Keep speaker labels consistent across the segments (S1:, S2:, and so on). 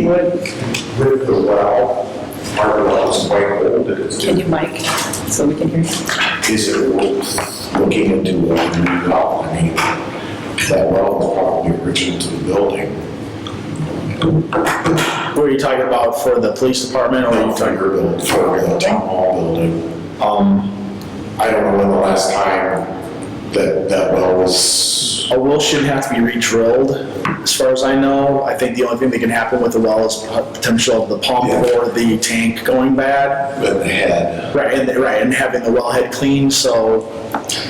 S1: would.
S2: With the well, our well is quite old, it's,
S1: Can you mic so we can hear? you?
S2: is it worth looking into a new well? I mean, that well was probably original to the building,
S3: What are you talking about for the police department or are you talking?
S2: figure built for the town hall building.
S3: Um,
S2: I don't know when the last time that, that well was,
S3: a well shouldn't have to be re-drilled, as far as I know. I think the only thing that can happen with a well is potential of the pump
S2: Yeah.
S3: or the tank going bad.
S2: been had.
S3: Right, and, right, and having the wellhead clean, so,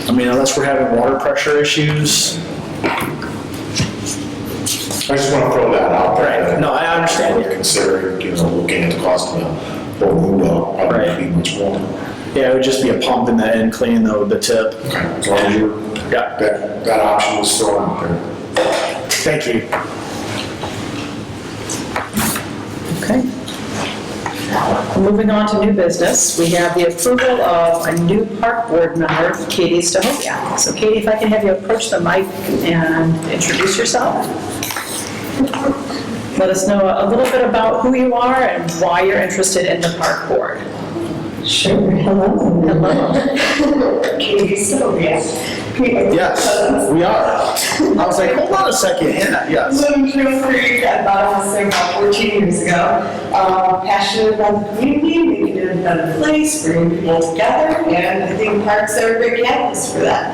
S3: I mean, unless we're having water pressure issues.
S2: I just want to throw that out there.
S3: Right, no, I understand.
S2: We're Considering, you know, looking at the cost of a whole new well,
S3: Right.
S2: probably be much more.
S3: Yeah, it would just be a pump in the end, cleaning the, the tip.
S2: Okay, as long as you're,
S3: Yeah.
S2: that, that option was still out there.
S3: Thank you.
S1: Okay. Moving on to new business, we have the approval of a new park board member, Katie Stahovia. So Katie, if I can have you approach the mic and introduce yourself. Let us know a little bit about who you are and why you're interested in the park board.
S4: Sure, hello. Hello. Katie Sylvia.
S5: Uh,
S3: Yes, we are. I was like, hold on a second, yeah, yes.
S4: Lived in Mill Creek, I bought this thing about 14 years ago. Uh, Passionate about the community, making it a better place, bringing people together, and I think parks are a great canvas for that.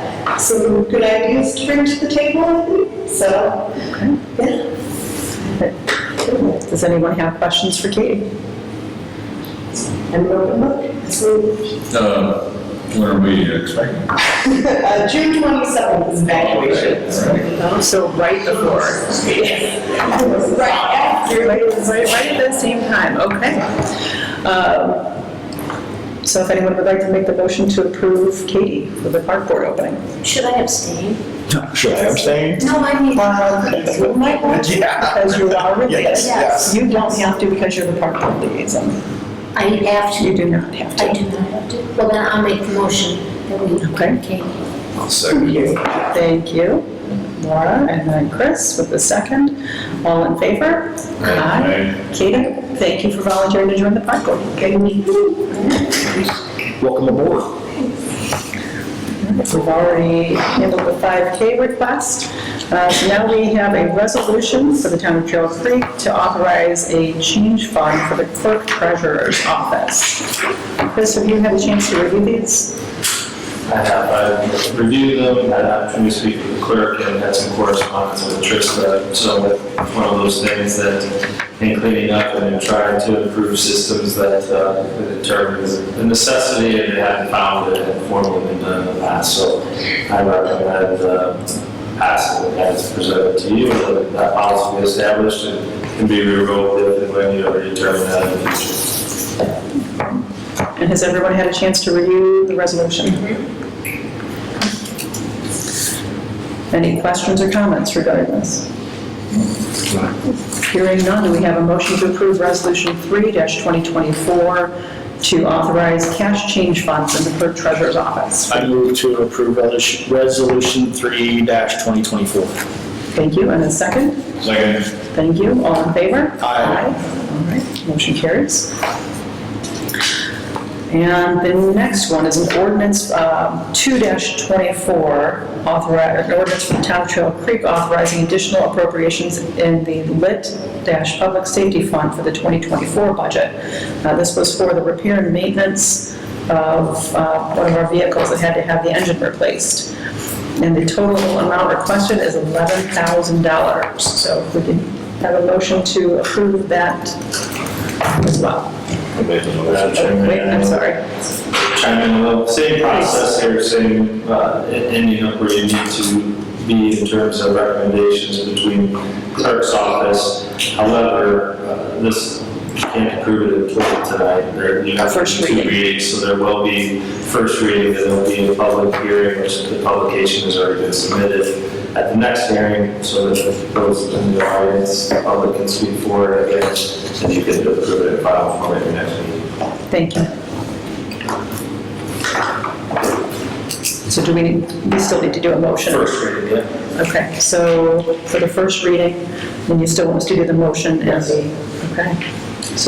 S4: Some good ideas to bring to the table, I think, so, yeah.
S1: Does anyone have questions for Katie?
S4: And open look, so,
S5: Uh, When are we expecting?
S4: uh, June 27th is evacuation.
S1: So right before.
S4: Right after.
S1: Right, right right at the same time, okay. Um, So if anyone would like to make the motion to approve Katie for the park board opening.
S6: Should I abstain?
S3: Should I abstain?
S6: No, I mean,
S3: Yeah.
S1: Because you are
S3: Yes,
S1: related.
S3: yes.
S1: You don't have to because you're the park board liaison.
S6: I have
S1: You
S6: to,
S1: do not have
S6: I
S1: to.
S6: do not have to. Well, then I'll make the motion that we,
S1: Okay.
S6: okay,
S2: I'll second.
S1: Thank you, Laura, and then Chris with the second. All in favor? Aye. Katie, thank you for volunteering to join the park board. Okay,
S3: Welcome aboard.
S1: We've already handled the 5K request. Uh, So now we have a resolution for the town of Trail Creek to authorize a change fund for the clerk treasurer's office. Chris, have you had a chance to review these?
S7: I have, I've reviewed them, had an opportunity to speak with the clerk, and had some correspondence with Trista. So it's one of those things that in cleaning up and in trying to improve systems that uh, we determined is a necessity and it hadn't found it had formally been done in the past. So I recommend uh, passing it as presented to you, that that policy be established and can be revoked if and when you ever determine that in the future.
S1: And has everyone had a chance to review the resolution? Any questions or comments regarding this? Hearing none, do we have a motion to approve Resolution 3-2024 to authorize cash change funds in the clerk treasurer's office?
S3: I move to approve Resolution- Resolution 3-2024.
S1: Thank you, and a second?
S5: Second.
S1: Thank you, all in favor?
S3: Aye.
S1: All right, motion carries. And the next one is an ordinance um, 2-24, authorize, an ordinance from Town of Trail Creek authorizing additional appropriations in the Lit-Public Safety Fund for the 2024 budget. Uh, This was for the repair and maintenance of uh, one of our vehicles that had to have the engine replaced. And the total amount requested is $11,000. So if we can have a motion to approve that as well. Oh,
S7: Madam Chairman,
S1: Wait, I'm
S7: I-
S1: sorry.
S7: chime in a little. Same process here, same, uh, ending up where you need to be in terms of recommendations between clerk's office. However, uh, this can't approve it until tonight. There, you have
S1: First
S7: two
S1: reading.
S7: readings, so there will be first reading, then there'll be a public hearing, which the publication has already been submitted at the next hearing, so that those in the audience, the public can speak for it, and you can approve it and file for it next meeting.
S1: Thank you. So do we, need- we still need to do a motion?
S7: First reading, yeah.
S1: Okay, so for the first reading, then you still want us to do the motion as a, okay?